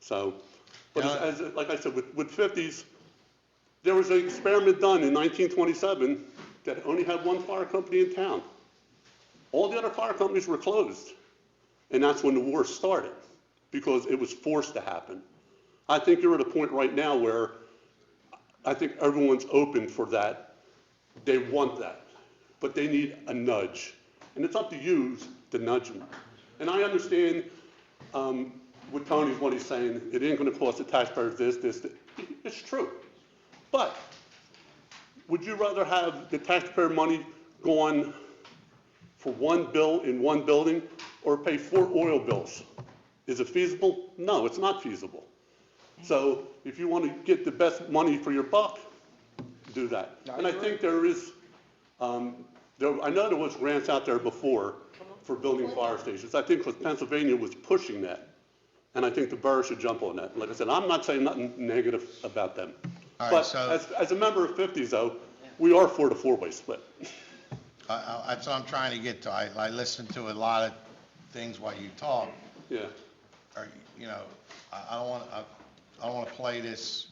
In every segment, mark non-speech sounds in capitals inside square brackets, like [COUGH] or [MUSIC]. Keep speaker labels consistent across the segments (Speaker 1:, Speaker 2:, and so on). Speaker 1: So, but
Speaker 2: Yeah.
Speaker 1: as, as- like I said, with, with fifties, there was an experiment done in nineteen twenty-seven that only had one fire company in town. All the other fire companies were closed, and that's when the war started, because it was forced to happen. I think you're at a point right now where I think everyone's open for that. They want that, but they need a nudge. And it's up to you to nudge them. And I understand um, what Tony's, what he's saying, it ain't gonna cost the taxpayers this, this, that. it's true. But would you rather have the taxpayer money gone for one bill in one building or pay four oil bills? Is it feasible? No, it's not feasible. So if you want to get the best money for your buck, do that.
Speaker 2: I
Speaker 1: And I
Speaker 2: agree.
Speaker 1: think there is, um, there, I know there was grants out there before for building fire stations. I think 'cause Pennsylvania was pushing that. And I think the borough should jump on that. Like I said, I'm not saying nothing negative about them.
Speaker 2: All right,
Speaker 1: But
Speaker 2: so-
Speaker 1: as, as a member of fifties though, we are for the four-way split. [LAUGHS]
Speaker 2: I- I- That's what I'm trying to get to. I, I listened to a lot of things while you talk,
Speaker 1: Yeah,
Speaker 2: or, you know, I, I don't want, I, I don't want to play this,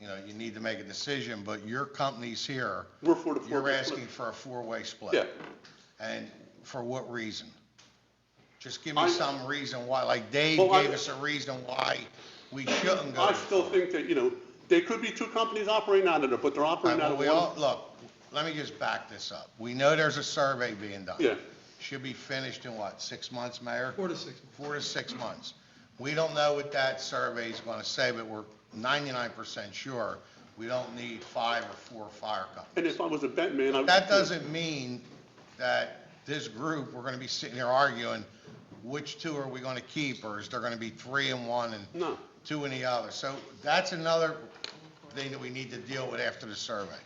Speaker 2: you know, you need to make a decision, but your company's here.
Speaker 1: we're for the
Speaker 2: You're
Speaker 1: four-way
Speaker 2: asking
Speaker 1: split.
Speaker 2: for a four-way split.
Speaker 1: Yeah.
Speaker 2: And for what reason? Just give
Speaker 1: I-
Speaker 2: me some reason why, like Dave
Speaker 1: Well, I-
Speaker 2: gave us a reason why we shouldn't go.
Speaker 1: I
Speaker 2: to-
Speaker 1: still think that, you know, there could be two companies operating out of there, but they're
Speaker 2: All right,
Speaker 1: operating out
Speaker 2: well,
Speaker 1: of
Speaker 2: we
Speaker 1: one.
Speaker 2: all, look, let me just back this up. We know there's a survey being done.
Speaker 1: Yeah.
Speaker 2: Should be finished in what, six months, Mayor?
Speaker 3: Four to six.
Speaker 2: Four to six months. We don't know what that survey is gonna say, but we're ninety-nine percent sure we don't need five or four fire companies.
Speaker 1: And if I was a bet man, I. would-
Speaker 2: That doesn't mean that this group, we're gonna be sitting here arguing, which two are we gonna keep, or is there gonna be three in one and
Speaker 1: No,
Speaker 2: two in the other. So that's another thing that we need to deal with after the survey.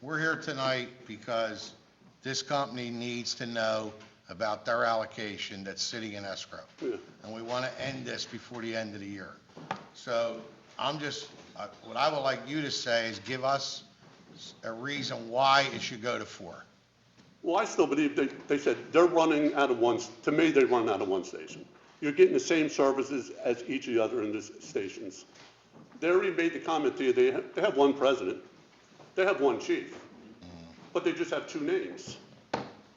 Speaker 2: We're here tonight because this company needs to know about their allocation that's sitting in escrow.
Speaker 1: Yeah.
Speaker 2: And we want to end this before the end of the year. So I'm just, uh, what I would like you to say is give us a reason why it should go to four.
Speaker 1: well, I still believe they, they said they're running out of one, s- to me, they run out of one station. You're getting the same services as each of the other in these stations. They already made the comment to you, they have, they have one president, they have one chief, but they just have two names.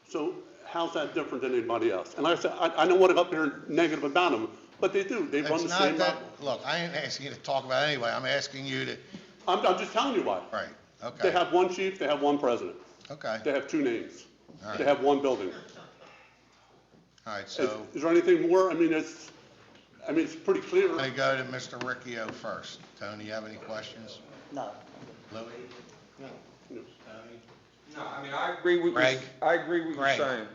Speaker 1: So how's that different than anybody else? And like I said, I, I don't want to go up here negative about them, but they do, they run
Speaker 2: It's
Speaker 1: the
Speaker 2: not
Speaker 1: same.
Speaker 2: that,
Speaker 1: op-
Speaker 2: look, I ain't asking you to talk about it anyway. I'm asking you to,
Speaker 1: I'm, I'm just telling you why.
Speaker 2: right,
Speaker 1: They
Speaker 2: okay,
Speaker 1: have one chief, they have one president,
Speaker 2: okay.
Speaker 1: they have two names,
Speaker 2: All right.
Speaker 1: they have one building.
Speaker 2: All right,
Speaker 1: Is
Speaker 2: so.
Speaker 1: is there anything more? I mean, it's, I mean, it's pretty clear.
Speaker 2: I'm going to go to Mr. Ricchio first. Tony, you have any questions?
Speaker 4: No.
Speaker 2: Louis?
Speaker 5: No, I mean, I agree with you.
Speaker 2: Greg?
Speaker 5: I agree with you
Speaker 2: Greg.
Speaker 5: saying.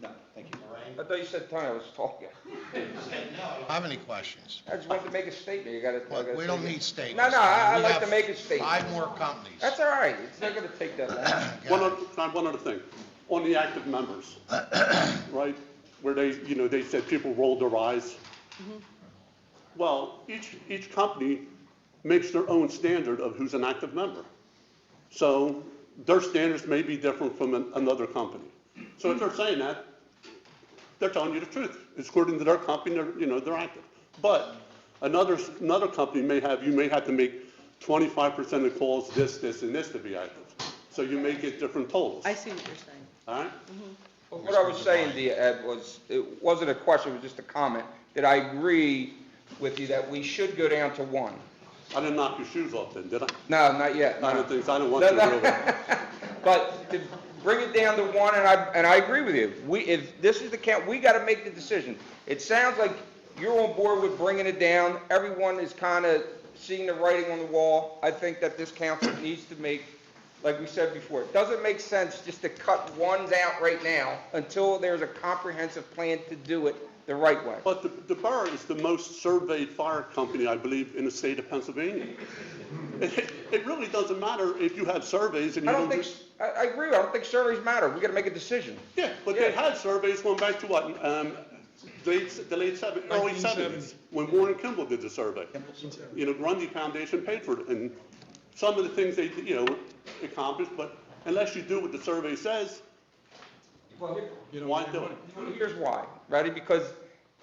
Speaker 4: No, thank you.
Speaker 5: I thought you said Tony, I was talking.
Speaker 2: I don't Have any questions?
Speaker 5: I just wanted to make a statement, you gotta. I
Speaker 2: Look,
Speaker 5: gotta
Speaker 2: we don't
Speaker 5: take it.
Speaker 2: need statements.
Speaker 5: No, no, I, I
Speaker 2: We
Speaker 5: like
Speaker 2: have
Speaker 5: to make a statement.
Speaker 2: Five more companies.
Speaker 5: That's all right, it's not gonna take
Speaker 2: [COUGHS]
Speaker 5: that long.
Speaker 2: Go
Speaker 1: One
Speaker 2: ahead.
Speaker 1: other, not one other thing, on the active members, right? Where they, you know, they said people rolled their eyes.
Speaker 6: Mm-hmm.
Speaker 1: Well, each, each company makes their own standard of who's an active member. So their standards may be different from an- another company. So if they're saying that, they're telling you the truth. It's according to their company, they're, you know, they're active. But another, another company may have, you may have to make twenty-five percent of calls this, this, and this to be active. So you may get different totals,
Speaker 6: I see Mm-hmm. what you're saying.
Speaker 1: all right?
Speaker 5: But What I was saying to you, Ed, was, it wasn't a question, it was just a comment, that I agree with you that we should go down to one.
Speaker 1: I didn't knock your shoes off then, did I?
Speaker 5: No, not yet,
Speaker 1: I
Speaker 5: no.
Speaker 1: don't think, I don't want
Speaker 5: No,
Speaker 1: you to
Speaker 5: no.
Speaker 1: really.
Speaker 5: [LAUGHS] But to bring it down to one, and I, and I agree with you, we, if this is the count, we gotta make the decision. It sounds like you're on board with bringing it down, everyone is kinda seeing the writing on the wall. I think that this council needs to make, like we said before, it doesn't make sense just to cut ones out right now until there's a comprehensive plan to do it the right way.
Speaker 1: But the, the borough is the most surveyed fire company, I believe, in the state of Pennsylvania. It, it really doesn't matter if you have surveys and
Speaker 5: I
Speaker 1: you
Speaker 5: don't
Speaker 1: don't
Speaker 5: think,
Speaker 1: do.
Speaker 5: I, I agree, I don't think surveys matter, we gotta make a decision.
Speaker 1: Yeah, but they
Speaker 5: Yeah.
Speaker 1: had surveys going back to what, um, late, the late seven, early
Speaker 3: 1970s.
Speaker 1: seventies, when Warren Kimball did the survey. You know, Grundy Foundation paid for it, and some of the things they, you know, accomplished, but unless you do what the survey says, why do it?
Speaker 5: Here's why, ready? Because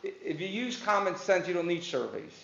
Speaker 5: i- if you use common sense, you don't need surveys.